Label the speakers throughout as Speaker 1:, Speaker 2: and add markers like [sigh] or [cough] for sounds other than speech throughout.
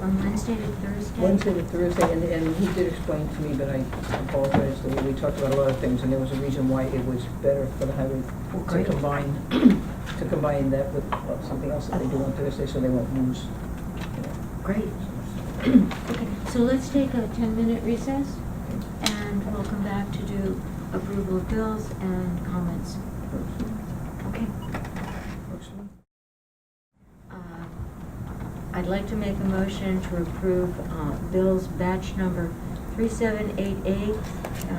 Speaker 1: on Wednesday to Thursday?
Speaker 2: Wednesday to Thursday, and, and he did explain to me, but I apologize, that we talked about a lot of things, and there was a reason why it was better for the highway
Speaker 1: Well,
Speaker 2: to
Speaker 1: great.
Speaker 2: combine, [coughs] to combine that with uh, something else that they do on Thursday, so they won't lose, you know.
Speaker 1: Great. Okay, so let's take a ten-minute recess, and we'll come back to do approval of bills and comments. Okay.
Speaker 2: Works for me.
Speaker 1: Uh, I'd like to make a motion to approve uh, bills batch number 3788 uh,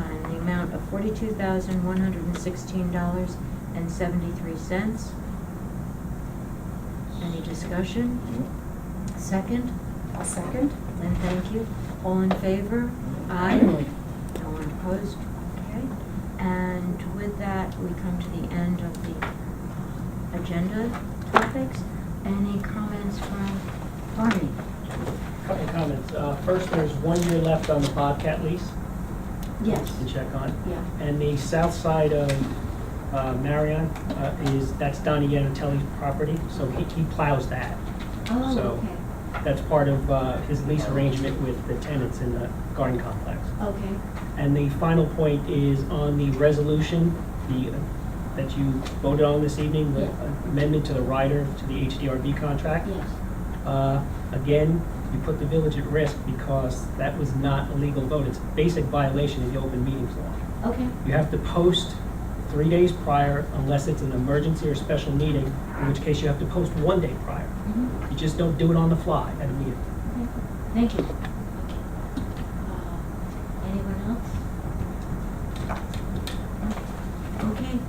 Speaker 1: in the amount of $42,116.73. Any discussion? Second?
Speaker 3: I'll second.
Speaker 1: And thank you. All in favor? Aye. No one opposed? Okay. And with that, we come to the end of the uh, agenda topics. Any comments from Barney?
Speaker 4: Couple comments. Uh, First, there's one year left on the Bobcat lease
Speaker 1: Yes.
Speaker 4: to check on.
Speaker 1: Yeah.
Speaker 4: And the south side of uh, Marion uh, is, that's Donnie Yannatelli's property, so he he plows that.
Speaker 1: Oh,
Speaker 4: So-
Speaker 1: okay.
Speaker 4: That's part of uh, his lease arrangement with the tenants in the garden complex.
Speaker 1: Okay.
Speaker 4: And the final point is on the resolution, the, uh, that you voted on this evening, the
Speaker 1: Yeah.
Speaker 4: amendment to the rider to the HDRB contract.
Speaker 1: Yes.
Speaker 4: Uh, Again, you put the village at risk because that was not a legal vote. It's a basic violation of the open meetings law.
Speaker 1: Okay.
Speaker 4: You have to post three days prior unless it's an emergency or special meeting, in which case you have to post one day prior.
Speaker 1: Mhm.
Speaker 4: You just don't do it on the fly at a meeting.
Speaker 1: Okay. Thank you. Okay. Uh, Anyone else? Okay,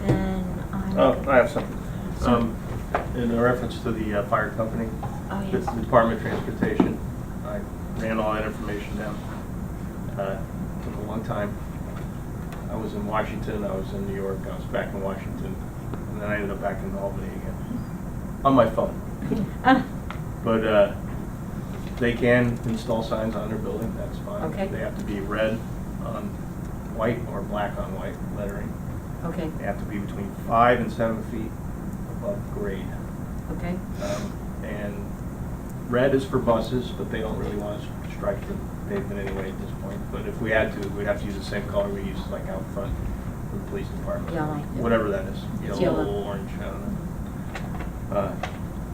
Speaker 1: then I'm.
Speaker 5: Oh, I have something.
Speaker 1: So-
Speaker 5: Um, In reference to the uh, fire company,
Speaker 1: Oh,
Speaker 5: it's the
Speaker 1: yes.
Speaker 5: Department of Transportation. I ran all that information down. Uh, Took a long time. I was in Washington, I was in New York, I was back in Washington, and then I ended up back in Albany again, on my phone.
Speaker 1: Ah,
Speaker 5: But uh, they can install signs on their building, that's fine.
Speaker 1: Okay.
Speaker 5: They have to be red on white or black on white lettering.
Speaker 1: Okay,
Speaker 5: They have to be between five and seven feet above grade.
Speaker 1: okay.
Speaker 5: Um, And red is for buses, but they don't really want to strike the pavement anyway at this point. But if we had to, we'd have to use the same color we use like out front for the police department.
Speaker 1: Yellow.
Speaker 5: Whatever that is,
Speaker 1: It's
Speaker 5: yellow,
Speaker 1: yellow.
Speaker 5: orange, I don't know. Uh,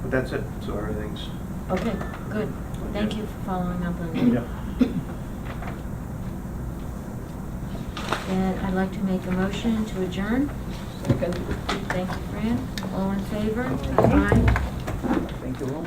Speaker 5: But that's it, so everything's,
Speaker 1: Okay, good. Thank you for following up on that.
Speaker 5: yeah.
Speaker 1: And I'd like to make a motion to adjourn.
Speaker 2: Second,
Speaker 1: Thank you, Fran. All in favor?
Speaker 2: Aye.
Speaker 1: Aye.
Speaker 2: thank you all.